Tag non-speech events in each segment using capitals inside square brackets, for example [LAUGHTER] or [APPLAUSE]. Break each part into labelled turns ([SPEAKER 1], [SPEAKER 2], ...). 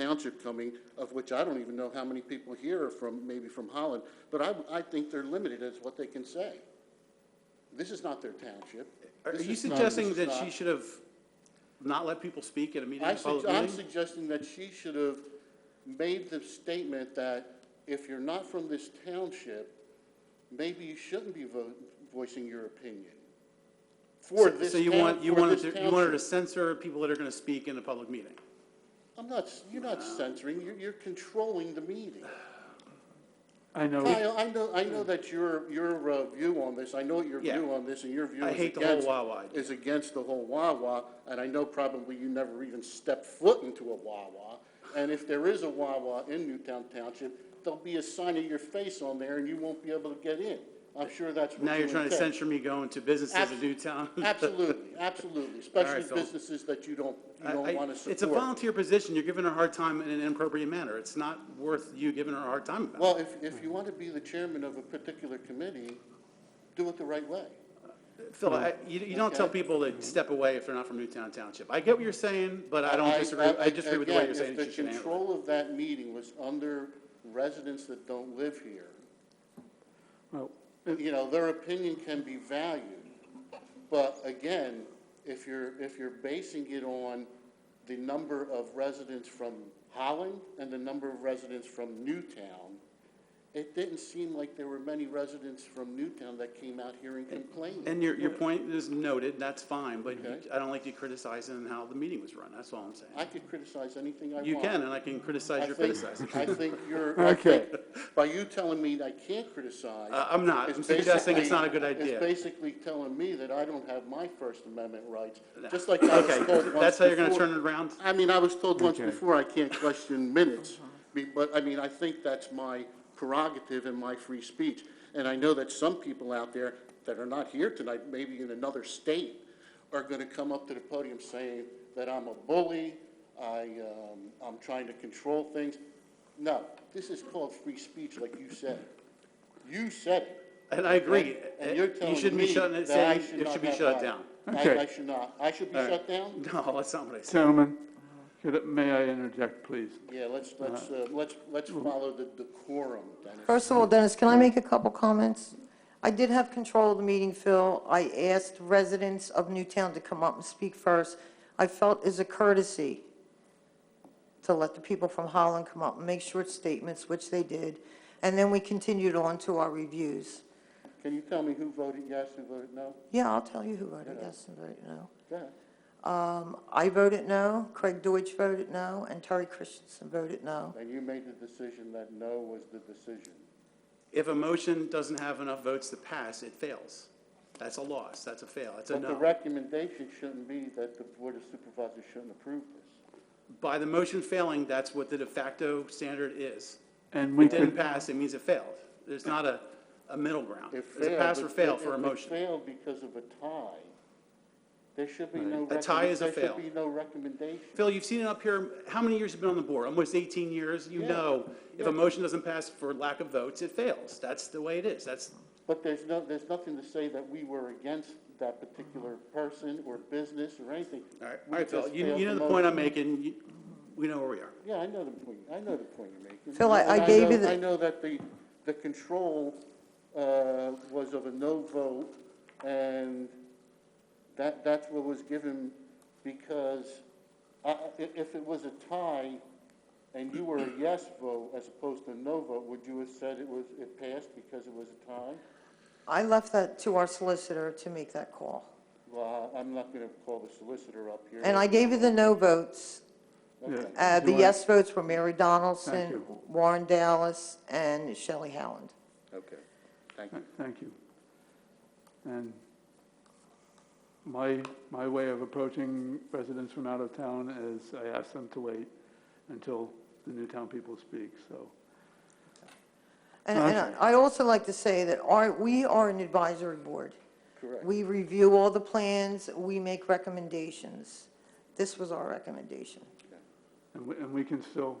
[SPEAKER 1] township coming, of which I don't even know how many people here are from, maybe from Holland, but I, I think they're limited as what they can say. This is not their township.
[SPEAKER 2] Are
[SPEAKER 1] This
[SPEAKER 2] you
[SPEAKER 1] is not-
[SPEAKER 2] suggesting
[SPEAKER 1] this is
[SPEAKER 2] that she
[SPEAKER 1] not-
[SPEAKER 2] should have not let people speak at a meeting,
[SPEAKER 1] I
[SPEAKER 2] a public
[SPEAKER 1] sug- I'm
[SPEAKER 2] meeting?
[SPEAKER 1] suggesting that she should have made the statement that if you're not from this township, maybe you shouldn't be vo- voicing your opinion for
[SPEAKER 2] So-
[SPEAKER 1] this
[SPEAKER 2] So you
[SPEAKER 1] town-
[SPEAKER 2] want, you
[SPEAKER 1] for
[SPEAKER 2] wanted,
[SPEAKER 1] this
[SPEAKER 2] to- you wanted
[SPEAKER 1] township.
[SPEAKER 2] to censor people that are gonna speak in a public meeting?
[SPEAKER 1] I'm not, s- you're not censoring, you're, you're controlling the meeting.
[SPEAKER 3] I know,
[SPEAKER 1] Kyle, I know, I know that your, your uh, view on this, I know what your
[SPEAKER 2] Yeah.
[SPEAKER 1] view on this, and your view
[SPEAKER 2] I
[SPEAKER 1] is
[SPEAKER 2] hate the whole
[SPEAKER 1] against,
[SPEAKER 2] Wawa idea.
[SPEAKER 1] is against the whole Wawa, and I know probably you never even stepped foot into a Wawa. And if there is a Wawa in Newtown Township, there'll be a sign of your face on there, and you won't be able to get in. I'm sure that's what
[SPEAKER 2] Now you're
[SPEAKER 1] you
[SPEAKER 2] trying to
[SPEAKER 1] intend.
[SPEAKER 2] censure me going to businesses in
[SPEAKER 1] Abs-
[SPEAKER 2] Newtown? [LAUGHS]
[SPEAKER 1] Absolutely, absolutely, especially
[SPEAKER 2] Phil.
[SPEAKER 1] businesses that you don't, you
[SPEAKER 2] I-
[SPEAKER 1] don't
[SPEAKER 2] I-
[SPEAKER 1] want to support.
[SPEAKER 2] It's a volunteer position, you're giving her a hard time in an inappropriate manner, it's not worth you giving her a hard time about.
[SPEAKER 1] Well, if, if you want to be the chairman of a particular committee, do it the right way.
[SPEAKER 2] Phil, I- you, you don't tell
[SPEAKER 1] okay.
[SPEAKER 2] people to step away if they're not from Newtown Township. I get what you're saying, but I don't disagree,
[SPEAKER 1] I-
[SPEAKER 2] I disagree with the way
[SPEAKER 1] again,
[SPEAKER 2] you're saying
[SPEAKER 1] if
[SPEAKER 2] she should
[SPEAKER 1] the
[SPEAKER 2] handle it.
[SPEAKER 1] control of that meeting was under residents that don't live here,
[SPEAKER 3] well,
[SPEAKER 1] you know, their opinion can be valued. But again, if you're, if you're basing it on the number of residents from Holland and the number of residents from Newtown, it didn't seem like there were many residents from Newtown that came out here and complained.
[SPEAKER 2] And your, your point is noted, that's fine, but you-
[SPEAKER 1] Okay.
[SPEAKER 2] I don't like you criticizing how the meeting was run, that's all I'm saying.
[SPEAKER 1] I could criticize anything I want.
[SPEAKER 2] You can, and I can
[SPEAKER 1] I
[SPEAKER 2] criticize your
[SPEAKER 1] think-
[SPEAKER 2] criticism.
[SPEAKER 1] I think you're,
[SPEAKER 2] [LAUGHS]
[SPEAKER 1] I
[SPEAKER 3] Okay.
[SPEAKER 1] think by you telling me I can't criticize.
[SPEAKER 2] Uh, I'm not,
[SPEAKER 1] it's
[SPEAKER 2] I'm suggesting it's
[SPEAKER 1] basically-
[SPEAKER 2] not a good
[SPEAKER 1] It's
[SPEAKER 2] idea.
[SPEAKER 1] basically telling me that I don't have my First Amendment rights, just like I was
[SPEAKER 2] Okay,
[SPEAKER 1] told once before.
[SPEAKER 2] that's how you're gonna turn it around?
[SPEAKER 1] I mean, I was told once
[SPEAKER 3] Okay.
[SPEAKER 1] before I can't question minutes, be- but, I mean, I think that's my prerogative and my free speech. And I know that some people out there that are not here tonight, maybe in another state, are gonna come up to the podium saying that I'm a bully, I, um, I'm trying to control things. No, this is called free speech, like you said. You said it.
[SPEAKER 2] And I agree,
[SPEAKER 1] And you're
[SPEAKER 2] you
[SPEAKER 1] telling
[SPEAKER 2] should
[SPEAKER 1] me
[SPEAKER 2] be shutting it,
[SPEAKER 1] that I
[SPEAKER 2] saying
[SPEAKER 1] should
[SPEAKER 2] it
[SPEAKER 1] not
[SPEAKER 2] should be
[SPEAKER 1] have
[SPEAKER 2] shut
[SPEAKER 1] that.
[SPEAKER 2] down. [LAUGHS]
[SPEAKER 1] I,
[SPEAKER 3] Okay.
[SPEAKER 1] I should not, I should be shut down?
[SPEAKER 2] No, that's not what I said.
[SPEAKER 3] gentlemen, could- may I interject, please?
[SPEAKER 1] Yeah, let's,
[SPEAKER 2] Uh-huh.
[SPEAKER 1] let's, uh, let's, let's follow the decorum, Dennis.
[SPEAKER 4] First of all, Dennis, can I make a couple comments? I did have control of the meeting, Phil. I asked residents of Newtown to come up and speak first. I felt as a courtesy to let the people from Holland come up and make short statements, which they did, and then we continued on to our reviews.
[SPEAKER 1] Can you tell me who voted yes, who voted no?
[SPEAKER 4] Yeah, I'll tell you who voted yes and voted no.
[SPEAKER 1] Go ahead.
[SPEAKER 4] Um, I voted no, Craig Deutsch voted no, and Terry Christensen voted no.
[SPEAKER 1] And you made the decision that no was the decision.
[SPEAKER 2] If a motion doesn't have enough votes to pass, it fails. That's a loss, that's a fail, it's a
[SPEAKER 1] But the
[SPEAKER 2] no.
[SPEAKER 1] recommendation shouldn't be that the Board of Supervisors shouldn't approve this.
[SPEAKER 2] By the motion failing, that's what the de facto standard is.
[SPEAKER 3] And we
[SPEAKER 2] It didn't
[SPEAKER 3] could,
[SPEAKER 2] pass, it means it failed. There's not a, a middle ground.
[SPEAKER 1] It
[SPEAKER 2] There's a pass or
[SPEAKER 1] failed,
[SPEAKER 2] fail
[SPEAKER 1] if-
[SPEAKER 2] for a
[SPEAKER 1] if
[SPEAKER 2] motion.
[SPEAKER 1] It failed because of a tie. There should be no.
[SPEAKER 2] A tie
[SPEAKER 1] recommend-
[SPEAKER 2] is a fail.
[SPEAKER 1] There should be no recommendation.
[SPEAKER 2] Phil, you've seen it up here, how many years have you been on the board? Almost 18 years? You
[SPEAKER 1] Yeah.
[SPEAKER 2] know, if
[SPEAKER 1] Yeah.
[SPEAKER 2] a motion doesn't pass for lack of votes, it fails. That's the way it is. That's,
[SPEAKER 1] But there's no, there's nothing to say that we were against that particular person or business or anything.
[SPEAKER 2] all right,
[SPEAKER 1] We
[SPEAKER 2] all right, Phil,
[SPEAKER 1] just
[SPEAKER 2] you
[SPEAKER 1] failed
[SPEAKER 2] you know
[SPEAKER 1] to
[SPEAKER 2] the point I'm
[SPEAKER 1] motivate.
[SPEAKER 2] making, You- we know where we are.
[SPEAKER 1] Yeah, I know the point, I know the point you're making.
[SPEAKER 4] Phil, I- I
[SPEAKER 1] And
[SPEAKER 4] gave
[SPEAKER 1] know-
[SPEAKER 4] you the-
[SPEAKER 1] I know that the, the control uh, was of a no vote, and that, that's what was given because I- I- i- if it was a tie and you were a yes vote as opposed to a no vote, would you have said it was, it passed because it was a tie?
[SPEAKER 4] I left that to our solicitor to make that call.
[SPEAKER 1] Well, I- I'm not going to call the solicitor up here.
[SPEAKER 4] And I gave you the no votes.
[SPEAKER 1] Okay.
[SPEAKER 4] Uh, The
[SPEAKER 3] Right.
[SPEAKER 4] yes votes were Mary
[SPEAKER 3] Thank
[SPEAKER 4] Donaldson,
[SPEAKER 3] you.
[SPEAKER 4] Warren Dallas, and Shelley Howland.
[SPEAKER 1] Okay, thank you.
[SPEAKER 3] thank you. And my, my way of approaching residents from out of town is I ask them to wait until the Newtown people speak, so.
[SPEAKER 4] And and
[SPEAKER 3] Okay.
[SPEAKER 4] I- I'd also like to say that our, we are an advisory board.
[SPEAKER 1] Correct.
[SPEAKER 4] We review all the plans, we make recommendations. This was our recommendation.
[SPEAKER 3] And we, and we can still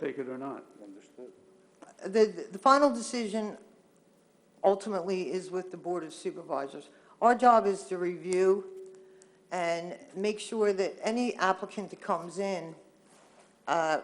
[SPEAKER 3] take it or not.
[SPEAKER 1] Understood.
[SPEAKER 4] The, the final decision ultimately is with the Board of Supervisors. Our job is to review and make sure that any applicant that comes in uh,